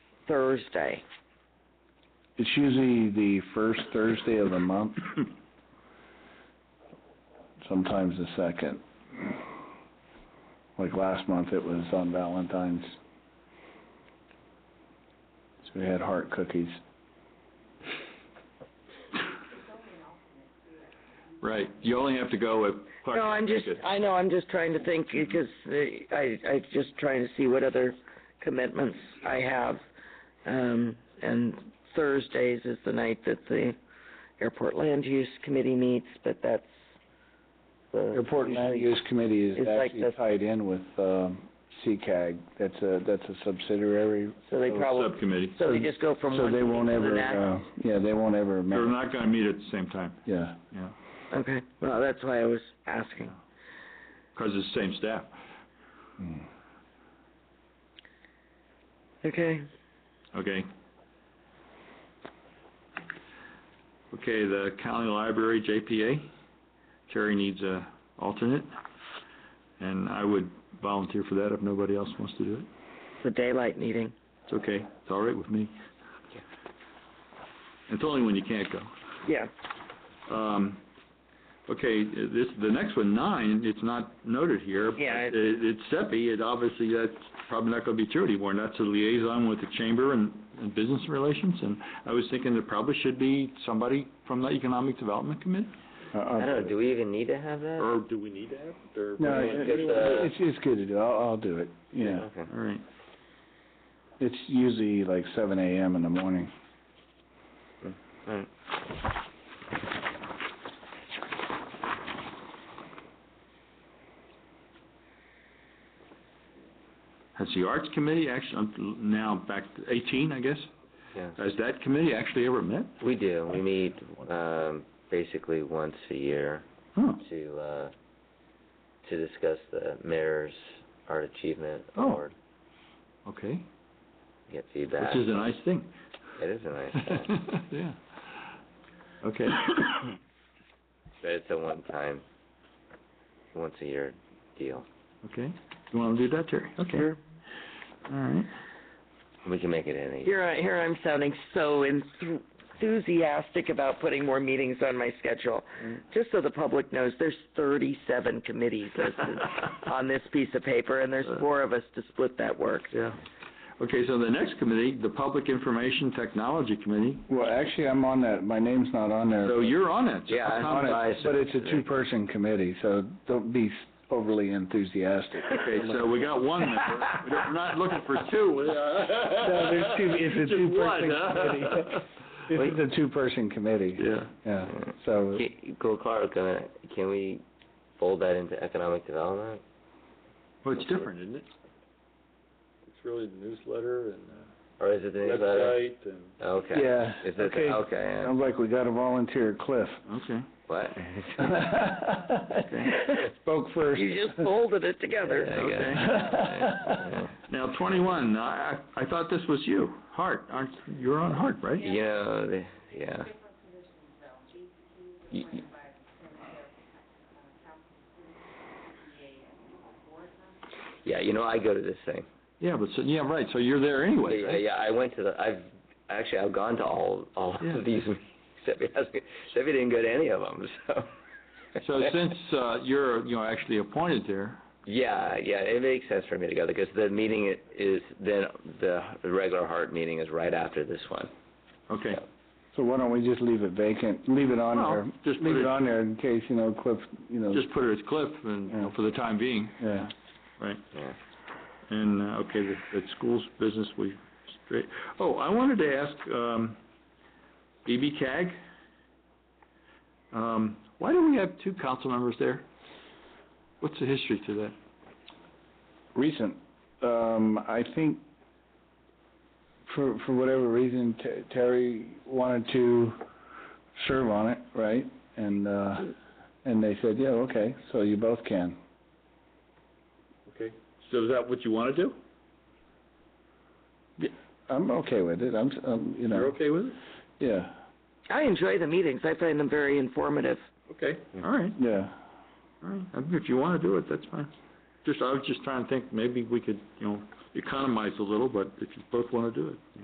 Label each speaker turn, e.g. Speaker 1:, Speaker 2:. Speaker 1: Thursday.
Speaker 2: It's usually the first Thursday of the month. Sometimes the second. Like last month, it was on Valentine's. So we had heart cookies.
Speaker 3: Right, you only have to go if Clark.
Speaker 1: No, I'm just, I know, I'm just trying to think because uh, I, I'm just trying to see what other commitments I have. Um, and Thursdays is the night that the Airport Land Use Committee meets, but that's the.
Speaker 2: Airport Land
Speaker 1: usually-
Speaker 2: Use Committee is
Speaker 1: It's like
Speaker 2: actually
Speaker 1: the-
Speaker 2: tied in with, um, CCAG. That's a, that's a subsidiary.
Speaker 1: So they probably,
Speaker 3: Subcommittee.
Speaker 1: so they just go from
Speaker 2: Oh, So
Speaker 1: one
Speaker 2: they
Speaker 1: meeting
Speaker 2: won't
Speaker 1: to the
Speaker 2: ever,
Speaker 1: next.
Speaker 2: uh, yeah, they won't ever,
Speaker 3: They're
Speaker 2: ma-
Speaker 3: not gonna meet at the same time,
Speaker 2: yeah.
Speaker 3: yeah,
Speaker 1: Okay, well, that's why I was asking.
Speaker 3: 'cause it's the same staff.
Speaker 2: Mm.
Speaker 1: Okay,
Speaker 3: Okay. Okay, the county library, JPA, Terry needs a alternate, and I would volunteer for that if nobody else wants to do it.
Speaker 1: the daylight meeting.
Speaker 3: It's okay, it's all right with me. It's only when you can't go.
Speaker 1: Yeah,
Speaker 3: Um, okay, this, the next one, nine, it's not noted here. but
Speaker 1: Yeah,
Speaker 3: It,
Speaker 1: it-
Speaker 3: it's SEPI, it obviously, that's probably not gonna be true anymore, and that's a liaison with the chamber and, and business relations, and I was thinking there probably should be somebody from the Economic Development Committee,
Speaker 2: I- I'll
Speaker 4: I don't
Speaker 2: put
Speaker 4: know,
Speaker 2: it-
Speaker 4: do we even need to have that?
Speaker 3: or do we need to have? it, or-
Speaker 2: No,
Speaker 4: Everyone
Speaker 2: it-
Speaker 4: gets a-
Speaker 2: it's, it's good to do, I'll, I'll do it, yeah.
Speaker 4: Okay.
Speaker 3: All right,
Speaker 2: It's usually like seven AM in the morning.
Speaker 4: Alright.
Speaker 3: has the Arts Committee actually, I'm now back to eighteen, I guess,
Speaker 4: Yeah,
Speaker 3: has that committee actually ever met?
Speaker 4: we do, we meet, um, basically once a year
Speaker 3: Huh,
Speaker 4: to, uh, to discuss the mayor's art achievement
Speaker 3: Oh.
Speaker 4: award,
Speaker 3: okay,
Speaker 4: get feedback.
Speaker 3: which is a nice thing.
Speaker 4: It is a nice thing,
Speaker 3: Yeah. Okay,
Speaker 4: but it's a one-time, once-a-year deal.
Speaker 3: okay, you wanna do that, Terry? Okay. All right.
Speaker 4: We can make it any,
Speaker 1: here I, here I'm sounding so enthusiastic about putting more meetings on my schedule. Just so the public knows, there's thirty-seven committees listed on this piece of paper, and there's four of us to split that work.
Speaker 3: Yeah. Uh, Okay, so the next committee, the Public Information Technology Committee,
Speaker 2: Well, actually, I'm on that, my name's not on there.
Speaker 3: so you're on it. so
Speaker 4: Yeah,
Speaker 3: how
Speaker 4: I'm
Speaker 3: come-
Speaker 2: On it,
Speaker 4: Advisory.
Speaker 2: but it's a two-person committee, so don't be overly enthusiastic.
Speaker 3: Okay, so we got one member, We don't- we're not looking for two. No,
Speaker 2: there's two- it's a
Speaker 3: Just one,
Speaker 2: two-person
Speaker 3: huh?
Speaker 2: It's a two-person committee,
Speaker 3: Yeah,
Speaker 2: yeah, so,
Speaker 4: Ca- Go Clark, uh, can we fold that into economic development?
Speaker 3: well, it's different, isn't it? It's really the newsletter and uh,
Speaker 4: Or is it the newsletter?
Speaker 3: and.
Speaker 4: Okay.
Speaker 2: yeah.
Speaker 4: Is it,
Speaker 2: Okay.
Speaker 4: okay, yeah.
Speaker 2: Sounds like we got a volunteer, Cliff.
Speaker 3: Okay.
Speaker 4: what?
Speaker 2: Spoke first.
Speaker 1: You just folded it together.
Speaker 4: Yeah, I guess. Yeah.
Speaker 3: Now, twenty-one, I, I I thought this was you, Hart, aren't, you're on Hart, right?
Speaker 4: You know, the, yeah. You- you- Yeah, you know, I go to this thing.
Speaker 3: Yeah, but, so, yeah, right, so you're there anyway,
Speaker 4: Yeah,
Speaker 3: right?
Speaker 4: yeah, I went to the, I've, actually, I've gone to all, all
Speaker 3: Yeah.
Speaker 4: of these, meetings. except he hasn't, except he didn't go to any of them, so.
Speaker 3: So since, uh, you're, you know, actually appointed there,
Speaker 4: Yeah, yeah, it makes sense for me to go, because the meeting i- is, then, the regular heart meeting is right after this one.
Speaker 3: okay.
Speaker 2: So why don't we just leave it vacant, leave it on
Speaker 3: Well,
Speaker 2: there,
Speaker 3: just put
Speaker 2: leave
Speaker 3: it-
Speaker 2: it on there in case, you know, Cliff, you know,
Speaker 3: Just put it as Cliff and, you know, for the time being,
Speaker 2: yeah.
Speaker 3: right?
Speaker 4: Yeah.
Speaker 3: And, uh, okay, the, the school's business, we straight, oh, I wanted to ask, um, BB CAG, um, why do we have two council members there? What's the history to that?
Speaker 2: recent. Um, I think for for whatever reason, T- Terry wanted to serve on it, right? And uh, and they said, yeah, okay, so you both can.
Speaker 3: Okay, so is that what you wanna do?
Speaker 2: I'm okay with it. I'm, s- um, you know,
Speaker 3: You're okay with it?
Speaker 2: yeah,
Speaker 1: I enjoy the meetings. I find them very informative.
Speaker 3: Okay, all right.
Speaker 2: yeah.
Speaker 3: All right, I mean, if you wanna do it, that's fine. Just, I was just trying to think, maybe we could, you know, economize a little, but if you both wanna do it.